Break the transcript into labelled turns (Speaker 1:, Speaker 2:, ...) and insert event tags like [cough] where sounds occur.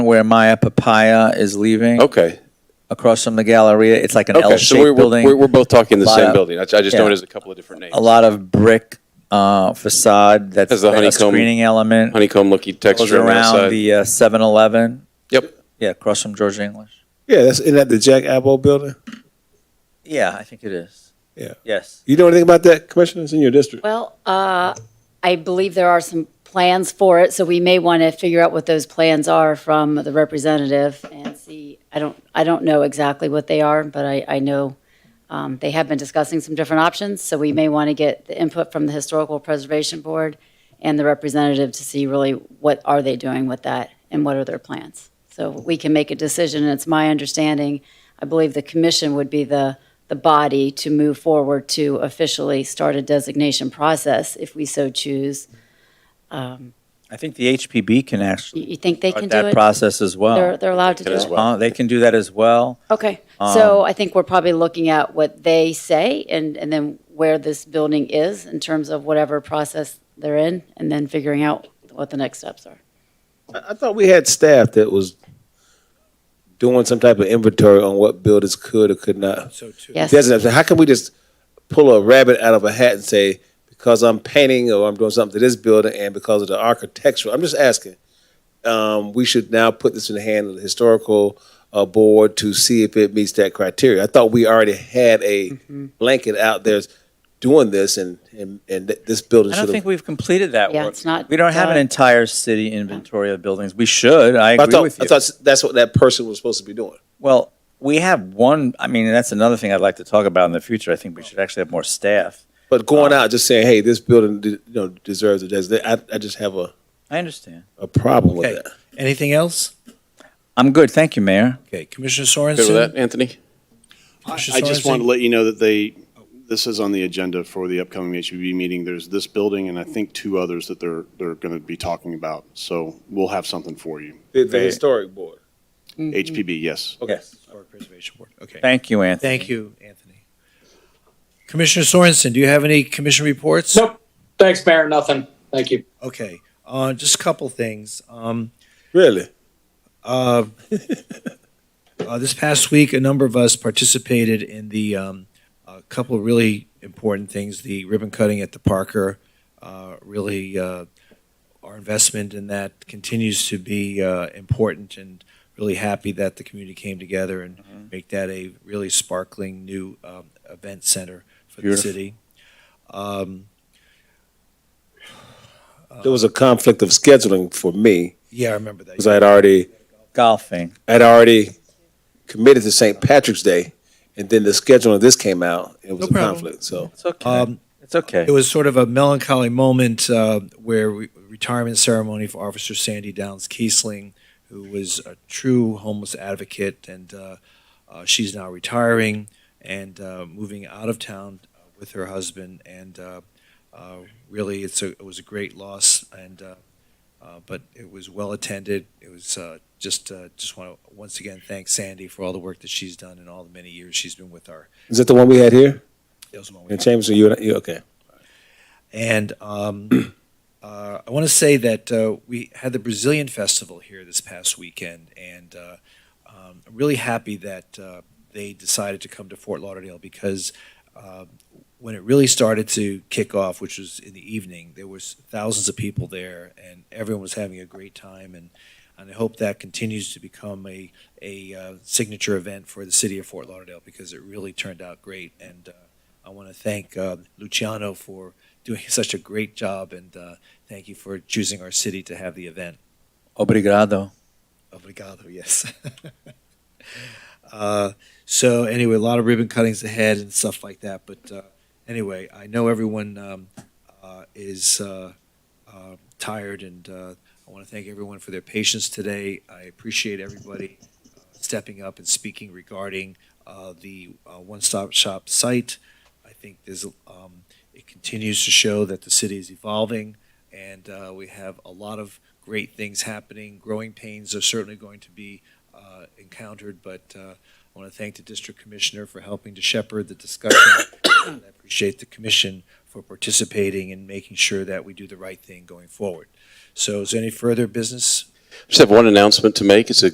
Speaker 1: where Maya Papaya is leaving,
Speaker 2: Okay.
Speaker 1: across from the Galleria. It's like an
Speaker 2: Okay. So
Speaker 1: L-shaped
Speaker 2: we're,
Speaker 1: building.
Speaker 2: we're, we're both talking the
Speaker 1: Lot
Speaker 2: same
Speaker 1: of-
Speaker 2: building. I, I just
Speaker 1: yeah.
Speaker 2: know it as a couple of different names.
Speaker 1: a lot of brick uh, facade that's
Speaker 2: Has the
Speaker 1: a
Speaker 2: honeycomb-
Speaker 1: screening element.
Speaker 2: Honeycomb looking
Speaker 1: Goes
Speaker 2: texture on the
Speaker 1: around
Speaker 2: outside.
Speaker 1: the uh, 7-Eleven.
Speaker 2: Yep.
Speaker 1: Yeah, across from George English.
Speaker 3: Yeah, that's in that the Jack Abbo building.
Speaker 1: Yeah, I think it is.
Speaker 3: Yeah.
Speaker 1: Yes.
Speaker 3: You know anything about that, Commissioner? It's in your district.
Speaker 4: Well, uh, I believe there are some plans for it, so we may want to figure out what those plans are from the representative and see. I don't, I don't know exactly what they are, but I, I know um, they have been discussing some different options, so we may want to get the input from the Historical Preservation Board and the representative to see really what are they doing with that and what are their plans. So we can make a decision, and it's my understanding, I believe the commission would be the, the body to move forward to officially start a designation process if we so choose. Um,
Speaker 1: I think the HPB can
Speaker 4: You
Speaker 1: actually
Speaker 4: you think they can
Speaker 1: start
Speaker 4: do
Speaker 1: that
Speaker 4: it?
Speaker 1: process as
Speaker 4: They're,
Speaker 1: well. Um,
Speaker 4: they're allowed to do
Speaker 2: Can as
Speaker 4: it?
Speaker 2: well.
Speaker 1: Uh, They can do that as well.
Speaker 4: Okay, so I think we're probably looking at what they say and, and then where this building is in terms of whatever process they're in, and then figuring out what the next steps are.
Speaker 3: I, I thought we had staff that was doing some type of inventory on what buildings could or could not.
Speaker 5: So too.
Speaker 4: Yes,
Speaker 3: Doesn't how can we just pull a rabbit out of a hat and say because I'm painting or I'm doing something to this building and because of the architectural? I'm just asking. Um, we should now put this in the hand of the historical uh, board to see if it meets that criteria. I thought we already had a
Speaker 1: Mm-hmm.
Speaker 3: blanket out there doing this, and and, and th- this building
Speaker 1: I
Speaker 3: should
Speaker 1: don't
Speaker 3: have
Speaker 1: think we've completed that
Speaker 4: Yeah,
Speaker 1: work.
Speaker 4: it's not
Speaker 1: We don't have an
Speaker 4: done.
Speaker 1: entire city inventory of buildings. We should, I
Speaker 3: I
Speaker 1: agree
Speaker 3: thought,
Speaker 1: with you.
Speaker 3: I thought that's what that person was supposed to be doing.
Speaker 1: Well, we have one, I mean, that's another thing I'd like to talk about in the future. I think we should actually have more staff.
Speaker 3: But going
Speaker 1: Oh.
Speaker 3: out just saying, "Hey, this building, you know, deserves a designation," I, I just have a,
Speaker 1: I understand.
Speaker 3: a problem
Speaker 5: Okay.
Speaker 3: with that.
Speaker 5: Anything else?
Speaker 1: I'm good, thank you, Mayor.
Speaker 5: Okay, Commissioner Sorensen?
Speaker 2: Good with that, Anthony?
Speaker 6: I
Speaker 5: Commissioner
Speaker 6: I just
Speaker 5: Sorensen?
Speaker 6: wanted to let you know that they, this is on the agenda for the upcoming HPB meeting. There's this building and I think two others that they're, they're going to be talking about. So we'll have something for you.
Speaker 3: The,
Speaker 1: the
Speaker 3: historic board.
Speaker 6: HPB, yes.
Speaker 3: Okay.
Speaker 5: Historic Preservation Board, okay.
Speaker 1: Thank you, Anthony.
Speaker 5: Thank you, Anthony. Commissioner Sorensen, do you have any commission reports?
Speaker 7: Nope. Thanks, Mayor. Nothing. Thank you.
Speaker 5: Okay, uh, just a couple things. Um,
Speaker 3: Really?
Speaker 5: Uh, uh, this past week, a number of us participated in the um, a couple of really important things: the ribbon cutting at the Parker. Uh, really, uh, our investment in that continues to be uh, important, and really happy that the community came together and make that a really sparkling new um, event center for
Speaker 1: Beautiful.
Speaker 5: the city. Um,
Speaker 3: There was a conflict of scheduling for me
Speaker 5: yeah, I remember that.
Speaker 3: because I had already
Speaker 1: Golfing.
Speaker 3: I had already committed to St. Patrick's Day, and then the scheduling of this came out. It was
Speaker 5: No
Speaker 3: a
Speaker 5: problem.
Speaker 3: conflict. So
Speaker 1: It's okay.
Speaker 5: Um,
Speaker 1: It's okay.
Speaker 5: It was sort of a melancholy moment uh, where we, retirement ceremony for Officer Sandy Downs Kiesling, who was a true homeless advocate, and uh, uh, she's now retiring and uh, moving out of town uh, with her husband. And uh, uh, really, it's a, it was a great loss, and uh, uh, but it was well attended. It was uh, just uh, just want to once again thank Sandy for all the work that she's done and all the many years she's been with our.
Speaker 3: is that the one we had here
Speaker 5: It was a long
Speaker 3: in Chambers? Or you, and I- you okay?
Speaker 5: And um, [clears throat] uh, I want to say that uh, we had the Brazilian Festival here this past weekend, and uh, um, I'm really happy that uh, they decided to come to Fort Lauderdale because uh, when it really started to kick off, which was in the evening, there was thousands of people there, and everyone was having a great time. and And I hope that continues to become a a uh, signature event for the city of Fort Lauderdale because it really turned out great. And uh, I want to thank uh, Luciano for doing such a great job, and uh, thank you for choosing our city to have the event.
Speaker 1: Obrigado.
Speaker 5: Obrigado, yes. [laughs] uh, so anyway, a lot of ribbon cuttings ahead and stuff like that. But uh, anyway, I know everyone um, uh, is uh, uh, tired, and uh, I want to thank everyone for their patience today. I appreciate everybody uh, stepping up and speaking regarding uh, the uh, one-stop shop site. I think there's um, it continues to show that the city is evolving, and uh, we have a lot of great things happening. Growing pains are certainly going to be uh, encountered, but uh, I want to thank the district commissioner for helping to shepherd the discussion. and I appreciate the commission for participating and making sure that we do the right thing going forward. So is there any further business?
Speaker 2: Just have one announcement to make. It's a